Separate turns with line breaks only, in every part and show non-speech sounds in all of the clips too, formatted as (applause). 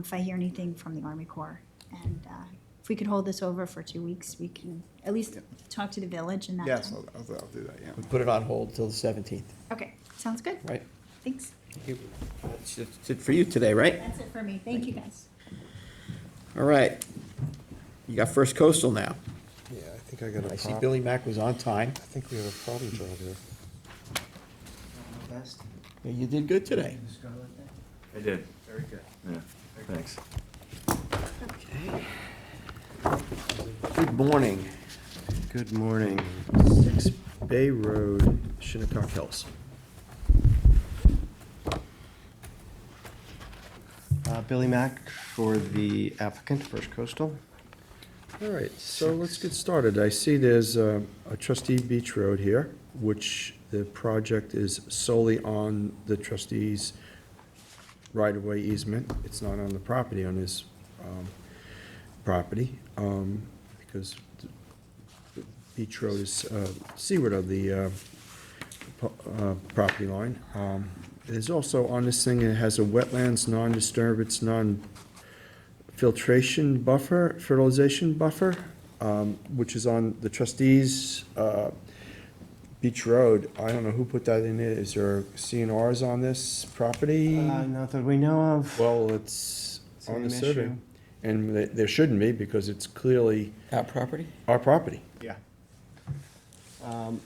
if I hear anything from the Army Corps. And uh, if we could hold this over for two weeks, we can at least
Yeah.
talk to the village in that
Yes,
time.
I'll, I'll I'll do that, yeah.
We put it on hold till the 17th,
Okay, sounds good.
right?
Thanks.
That's that's it for you today, right?
That's it for me. Thank you, guys.
All right. You got First Coastal now.
Yeah, I think I got
I
a
see
problem.
Billy Mack was on time.
I think we have a problem child here.
Best
Yeah, You did good today.
in Scarlet there?
I did,
Very good.
yeah, thanks.
Good morning.
Good morning. Six Bay Road, Shinnecock Hills. Uh, Billy Mack for the applicant, First Coastal. All right, so let's get started. I see there's uh, a trustee beach road here, which the project is solely on the trustee's right-of-way easement. It's not on the property, on his um, property, um, because the- the beach road is uh, seaward of the uh, po- uh, property line. Um, There's also on this thing, it has a wetlands, non-disturbance, non, filtration buffer, fertilization buffer, um, which is on the trustees, uh, Beach Road. I don't know who put that in there. Is there CNRs on this property?
Uh, Not that we know of.
Well, it's
It's
on
an
the survey.
issue.
And th- there shouldn't be because it's clearly
Our property?
our property.
Yeah.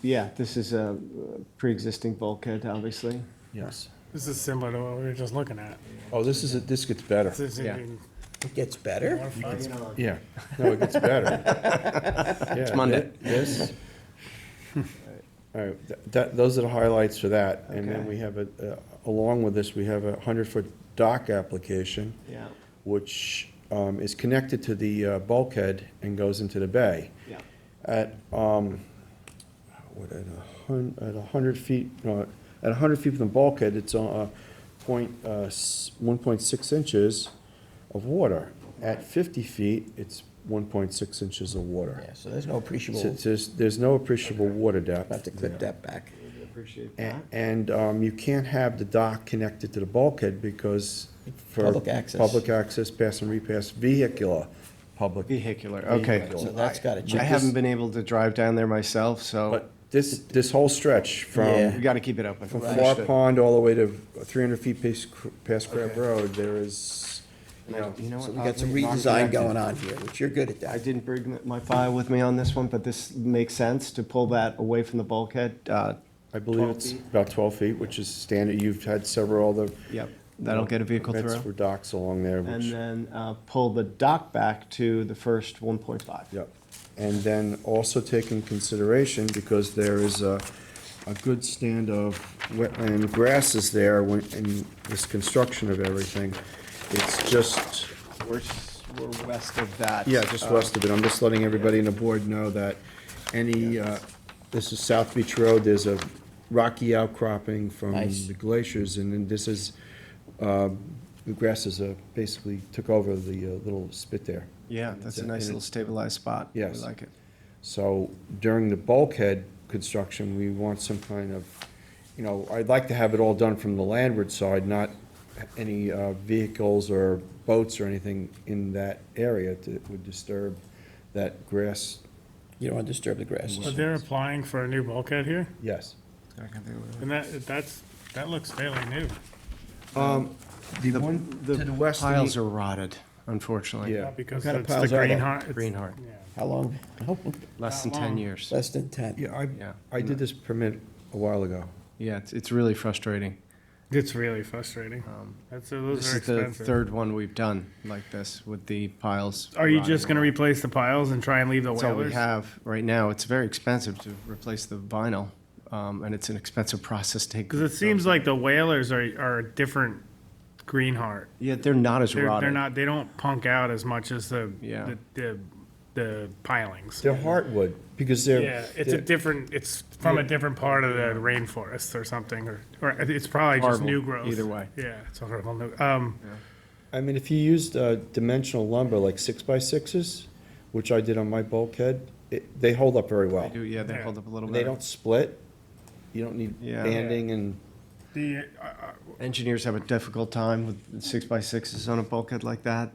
Yeah, this is a uh, pre-existing bulkhead, obviously.
Yes.
This is similar to what we were just looking at.
Oh, this is, this gets better.
This is
Yeah.
even
It gets better.
more fun.
Yeah. No, it gets
(laughs)
better. It's
Monday.
Yes. All right, th- that, those are the highlights for that. And then
Okay.
we have a, uh, along with this, we have a hundred-foot dock application.
Yeah,
Which, um, is connected to the uh, bulkhead and goes into the bay.
yeah.
At, um, what, at a hun, at a hundred feet, no, at a hundred feet from the bulkhead, it's on, uh, point, uh, one point six inches of water. At fifty feet, it's one point six inches of water.
Yeah, so there's no appreciable,
So There's, there's no appreciable water depth.
have to clip that back.
We Appreciate
A-
that.
And um, you can't have the dock connected to the bulkhead because for.
Public access.
Public access, pass and repass, vehicular, public.
Vehicular, okay.
Vehicular.
So that's got to
I
change.
haven't been able to drive down there myself, so
But this, this whole stretch
Yeah.
we
from,
got to keep it open.
from Far
Understood.
Pond all the way to three hundred feet past, Cr- past Crab Road, there is, you know.
You know
So
what?
we got some
oddly, not
redesign
connected.
going on here, which you're good at
I
that.
didn't bring my file with me on this one, but this makes sense to pull that away from the bulkhead. uh,
I believe
12
it's
feet.
about twelve feet, which is standard, you've had several other.
Yep, that'll get a vehicle
permits
through.
For docks along there, which.
And then uh, pull the dock back to the first 1.5.
Yep. And then also take in consideration, because there is a, a good stand of wetland grasses there when, in this construction of everything. It's just,
We're, s- we're west of that.
yeah, just
uh,
west of it. I'm just letting everybody in the board know that any, uh, this is South Beach Road, there's a rocky outcropping from
Nice.
the glaciers, and then this is, uh, the grasses uh, basically took over the uh, little spit there.
Um, Yeah,
And
that's a nice
it's- and
little
it's-
stabilized spot. We
Yes.
like it.
So during the bulkhead construction, we want some kind of, you know, I'd like to have it all done from the landward side, not any uh, vehicles or boats or anything in that area that would disturb that grass.
You don't want to disturb the grass.
But they're applying for a new bulkhead here,
Yes.
and that, that's, that looks fairly new.
The one to the west. of the-
Piles are rotted, unfortunately.
Yeah.
Not Because
What kind of
it's the
piles are they?
green heart. it's-
Greenheart,
Yeah.
How long?
less than
Not
10
long.
years.
Less than 10.
Yeah, I,
Yeah.
I did this permit a while ago.
Yeah, it's, it's really frustrating.
It's really frustrating. That's, those
Um, This
are
is the
expensive.
third one we've done like this with the piles.
Are you
rotting
just gonna
away.
replace the piles and try and leave the
That's all we
whalers?
have right now. It's very expensive to replace the vinyl, um, and it's an expensive process to.
Cause it seems like the whalers are, are a different green heart.
Yeah, they're not as
They're,
rotted.
they're not, they don't punk out as much as the,
Yeah.
the, the, the pilings.
They're heartwood, because they're.
Yeah, it's a
they're-
different, it's from a different part of the rainforest or something, or, or it's probably just
Horrible,
new growth.
either way.
Yeah, it's horrible. new- Um,
I mean, if you used uh, dimensional lumber, like six by sixes, which I did on my bulkhead, it- they hold up very well.
They do- Yeah, they
Yeah.
hold up a little
And
bit.
They don't split. You don't need
Yeah.
banding and
The, uh, uh,
Engineers have a difficult time with six by sixes on a bulkhead like that.